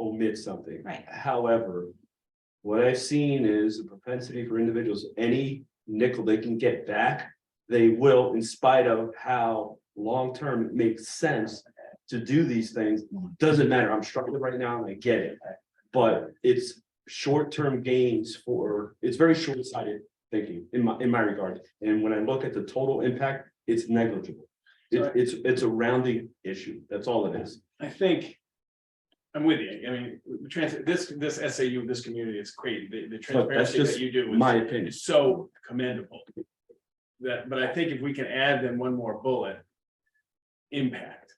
admit something. Right. However, what I've seen is a propensity for individuals, any nickel they can get back, they will, in spite of how long-term it makes sense to do these things. Doesn't matter, I'm struggling right now and I get it, but it's short-term gains for, it's very short-sighted thinking in my, in my regard. And when I look at the total impact, it's negligible. It's, Sorry. it's, it's a rounding issue, that's all it is. I think. I'm with you. I mean, the trans, this, this SAU, this community is great. The, the transparency just that you do My is, opinion, is so commendable. That, but I think if we can add then one more bullet. Impact.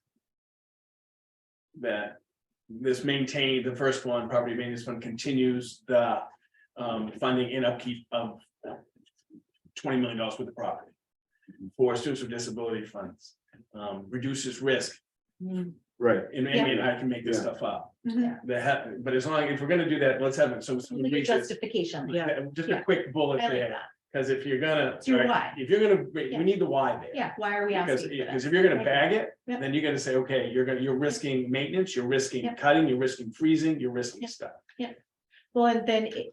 That this maintain, the first one, property maintenance fund continues the, um, funding and upkeep of. Twenty million dollars worth of property. For students with disability funds, um, reduces risk Mm, right, and I mean, I can make this Yeah. stuff up. mhm. That happen, but as long, if we're gonna do that, let's have it, so. so we Like a reach it. Justification, yeah. Yeah, Just a quick bullet I like there, that. because if you're gonna. It's your right, why. If you're gonna, we Yeah. we need the why there. Yeah, why are we Because, asking? for because that? if you're gonna Okay. bag it, Yeah. then you're gonna say, okay, you're gonna, you're risking maintenance, you're risking Yeah. cutting, you're risking freezing, you're risking Yeah. stuff. Well, and then it-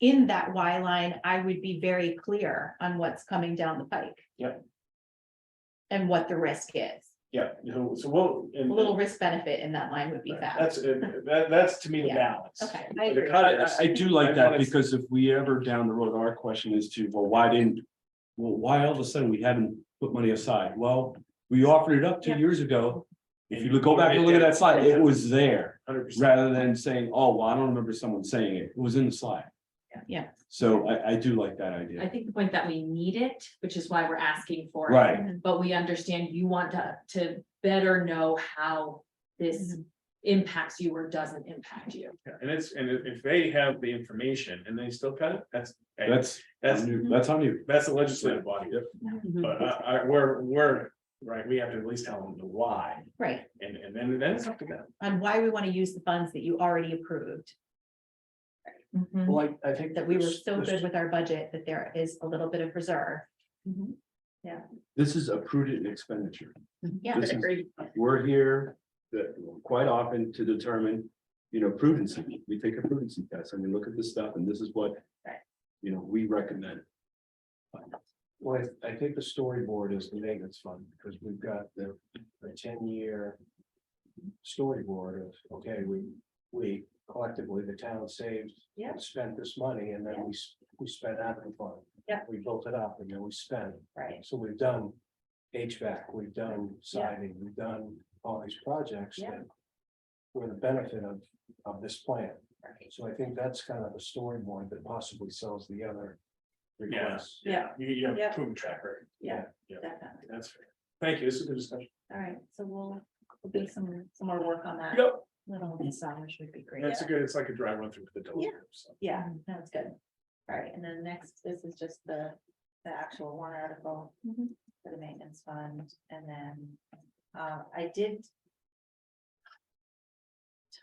in that why line, I would be very clear on what's coming down the pike. Yep. And what the risk is. Yeah, you know, so we'll. A and- little risk benefit in that line would be fab. Mm-hmm. That's, uh, that, that's to me the Yeah. balance. Okay. I The agree. cut, I, I- I do like that wanna- because if we ever down the road, our question is to, well, why didn't? Well, why all of a sudden we haven't put money aside? Well, we offered it up two Yeah. years ago. If And you go back and look at that slide, it was there, Hundred percent. rather than saying, oh, well, I don't remember someone saying it. It was in the slide. Yeah. So I, I do like that I idea. think the point that we need it, which is why we're asking for it. Right, But we understand you want to, to better know how this impacts you or doesn't impact you. Yeah, And it's, and if if they have the information and they still cut it, that's, that's, that's, on you. that's on you. that's the legislative body. But I, I, we're, we're, right, we have to at least tell them the why, Right, and, and then, then it's up to them. on why we want to use the funds that you already approved, Mm-hmm. Mhm. Well, I, I think. that we were this- so this- good with our budget that there is a little bit of reserve. This is a prudent expenditure. Yeah, This is- We're here that quite often to determine, you know, prudence. We take a prudence test and we look at this stuff and this is what. Right. You know, we recommend. Well, I- I think the storyboard is the maintenance fund, because we've got the, the ten-year. Storyboard of, okay, we, we collectively, the town saved. Yeah. and Spent this money and then we, s- we spent out of the fund. Yeah. We built it up and then we spent. right. So we've done HVAC, we've done siding, we've done all these projects Yeah. that. Were the benefit of, of this plan. Right. So I think that's kind of a storyboard that possibly sells the other. requests. Yeah. You, you have a Yeah. proven track record. Yeah, Yeah, Definitely. that's fair. Thank you, this is a good discussion. All right, so we'll we'll do some some more work on that. Yep, Little massage would be great. that's a good, it's like a dry run through the door. Yeah. Yeah, that's good. All right, and then next, this is just the, the actual warrant article for the maintenance fund, and then, uh, I did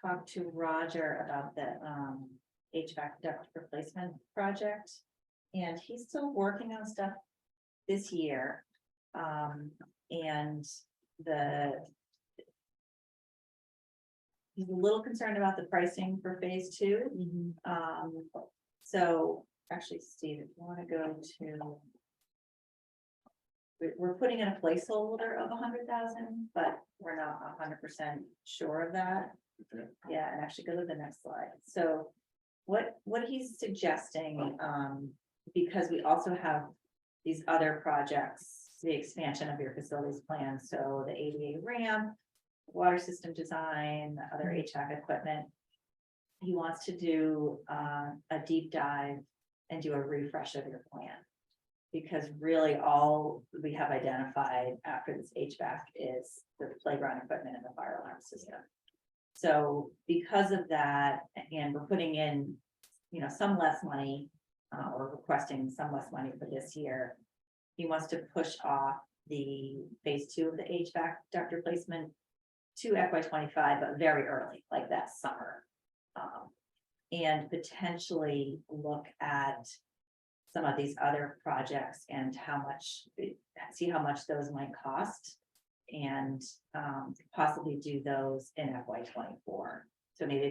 talk to Roger about the, um, HVAC duct replacement project, and he's still working on stuff this year. Um, and the he's a little concerned about the pricing for phase two, um, so actually, Steve, if you wanna go to. We, we're putting in a placeholder of a hundred thousand, but we're not a hundred percent sure of that. Okay. Yeah, and actually go to the next slide. So what, what he's suggesting, um, because we also have these other projects, the expansion of your facilities plan, so the ADA ramp, water system design, other HVAC equipment he wants to do uh, a deep dive and do a refresh of your plan. Because really all we have identified after this HVAC is the playground equipment and the fire alarm system. So because of that, and we're putting in, you know, some less money uh, or requesting some less money for this year. He wants to push off the phase two of the HVAC duct replacement to FY twenty-five, but very early, like that summer. Um, and potentially look at some of these other projects and how much, see how much those might cost. And, um, possibly do those in FY twenty-four. So maybe